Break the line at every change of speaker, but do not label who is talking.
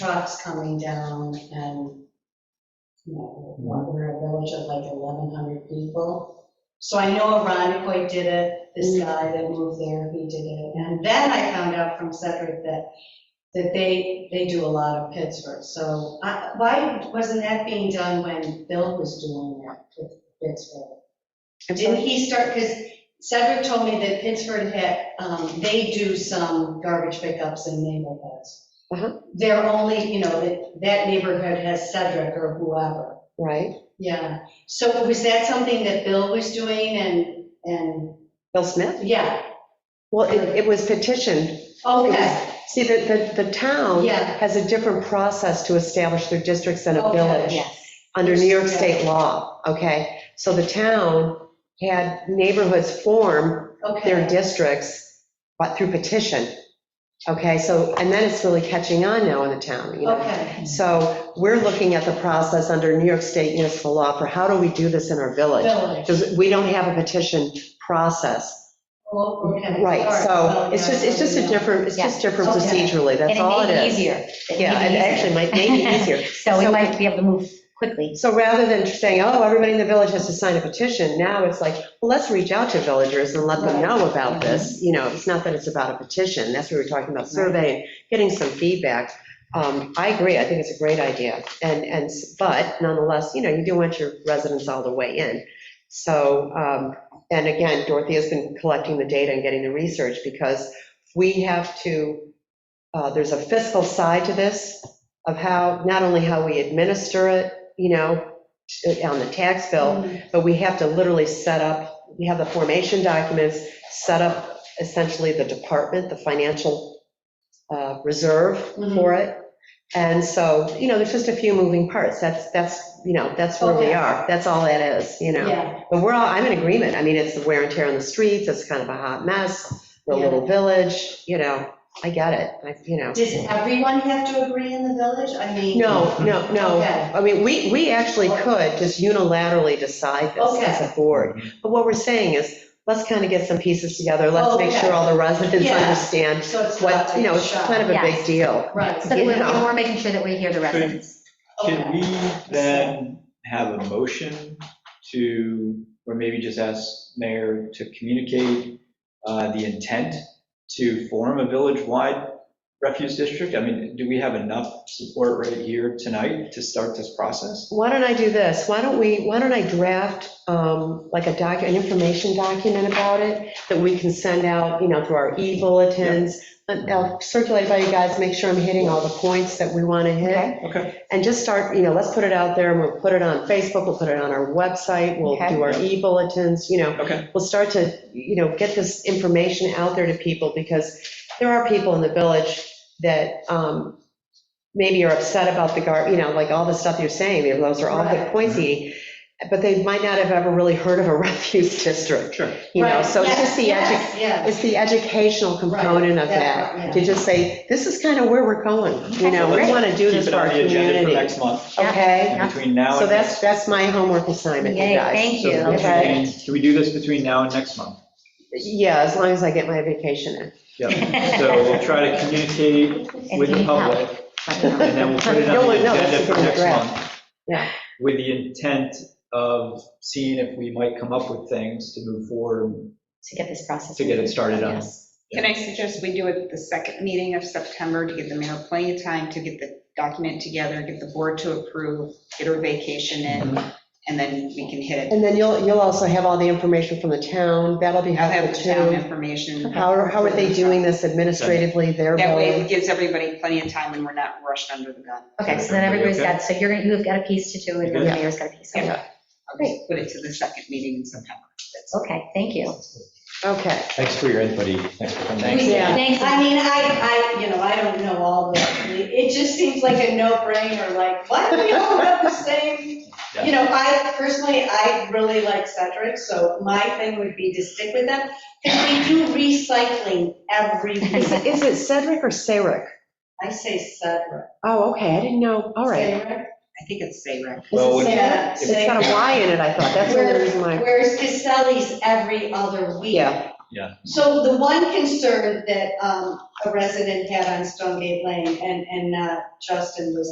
trucks coming down and, you know, we're a village of like 1,100 people. So I know Aronicoy did it,
Mm.
this guy that moved there, he did it. And then I found out from Cedric that, that they, they do a lot of Pittsburgh. So I- why wasn't that being done when Bill was doing that with Pittsburgh?
I'm
Didn't
sorry.
he start, because Cedric told me that Pittsburgh had, um, they do some garbage pickups in neighborhoods.
Uh-huh.
They're only, you know, that, that neighborhood has Cedric or whoever,
Right,
yeah. So was that something that Bill was doing and, and,
Bill Smith?
yeah,
Well, it, it was petitioned.
okay,
See, the, the, the town
Yeah.
has a different process to establish their districts than a
Okay,
village
Yes.
under New York
Yeah.
state law, okay? So the town had neighborhoods form their
okay.
districts, but through petition, okay? So, and then it's really catching on now in the town, you know?
Okay,
So we're looking at the process under New York State municipal law for how do we do this in our village?
village,
Because we don't have a petition process.
oh, okay.
Right,
Sorry.
so
Oh,
it's
yeah,
just, it's just a
yeah.
different, it's just different
Okay.
procedurally, that's all it
And it made it
is.
easier. It
Yeah,
made
it actually might make it easier.
So we might be able to move quickly.
So rather than saying, oh, everybody in the village has to sign a petition, now it's like, well, let's reach out to villagers and let them
Right.
know about this. You know, it's not that it's about a petition, that's what we were talking about, surveying, getting some feedback. Um, I agree, I think it's a great idea. And, and, s- but nonetheless, you know, you do want your residents all the way in. So, um, and again, Dorothy has been collecting the data and getting the research because we have to, uh, there's a fiscal side to this of how, not only how we administer it, you know, on the tax bill,
Mhm.
but we have to literally set up, we have the formation documents, set up essentially the department, the financial uh, reserve
Mm-hmm.
for it. And so, you know, there's just a few moving parts. That's, that's, you know, that's where
Oh,
we
yeah.
are. That's all that is, you know?
Yeah,
But we're all, I'm in agreement. I mean, it's the wear and tear on the streets, it's kind of a hot mess, we're a
Yeah.
little village, you know, I get it, I, you know.
does everyone have to agree in the village? I mean.
No, no, no.
Okay,
I mean, we, we actually could just unilaterally decide this
Okay.
as a board. But what we're saying is, let's kind of get some pieces together, let's make
Okay.
sure all the residents
Oh, Yeah.
understand
so it's not
what,
like
you know,
a
it's
shot.
kind of a big
Yes.
deal.
Right,
So that we're,
Yeah.
we're making sure that we hear the residents.
okay.
Um, Can we then have a motion to, or maybe just ask mayor to communicate uh, the intent to form a village-wide refuse district? I mean, do we have enough support right here tonight to start this process?
Why don't I do this? Why don't we, why don't I draft um, like a doc, an information document about it that we can send out, you know, through our e-bulletins? And I'll circulate by you guys, make sure I'm hitting all the points that we want to hit.
Okay.
Okay.
And just start, you know, let's put it out there and we'll put it on Facebook, we'll put it on our website, we'll
Okay.
do our e-bulletins, you know.
Okay.
We'll start to, you know, get this information out there to people because there are people in the village that um, maybe are upset about the gar, you know, like all the stuff you're saying, you know, those are all good
Right.
points, Edie, but they might not have ever really heard of a refuse district,
Sure.
you know,
Right,
so it's
yes,
just the, edu-
yes, yes.
it's the educational component of
Right,
that,
that part, yeah.
to just say, this is kind of where we're going, you know, we
Great.
want to do
Keep
this
it
for our
on the agenda for next
community.
month,
Yeah.
Okay,
and between now
so
and
that's,
next.
that's my homework assignment, you
Yay,
guys.
thank you.
so
okay.
between- Can we do this between now and next month?
Yeah, as long as I get my vacation in.
Yeah. So we'll try to communicate
If
with the
you help,
public
let me know.
And then we'll put it on
No,
the
no, that's
agenda
a
for
good
next
draft.
month.
Yeah.
With the intent of seeing if we might come up with things to move forward
To get this process.
to get it started on.
Yes.
Can I suggest we do it the second meeting of September to give the mayor plenty of time to get the document together, get the board to approve, get her vacation in, and then we can hit it.
And then you'll, you'll also have all the information from the town, that'll be
I'll have
helpful
the town
too.
information.
How, are- how are they doing this administratively, their
That way it
billing?
gives everybody plenty of time and we're not rushed under the gun.
Okay, so then everybody's got, so you're gonna, you've got a piece to do and then the
Yeah.
mayor's got a piece.
Yeah.
Okay,
I'll just put it to the second meeting in September. That's all.
Okay, thank you.
Okay,
Thanks for your input, Eve. Thanks for coming.
Thanks. Yeah.
Thanks.
I mean, I, I, you know, I don't know all the, it just seems like a no-brainer, like, why do we all have the same? You know, I personally, I really like Cedric, so my thing would be to stick with them. Because we do recycling every
is
week.
it- is it Cedric or Sarek?
I say Cedric.
Oh, okay, I didn't know, all right.
Cedric?
I think it's
Is
Sarah.
it
Well,
Yeah.
Sarek? It's got a Y in it, I thought, that's the only reason why.
Whereas Caselli's every other week.
Yeah.
Yeah.
So the one concern that um, a resident had on Stonegate Lane, and, and uh, Justin was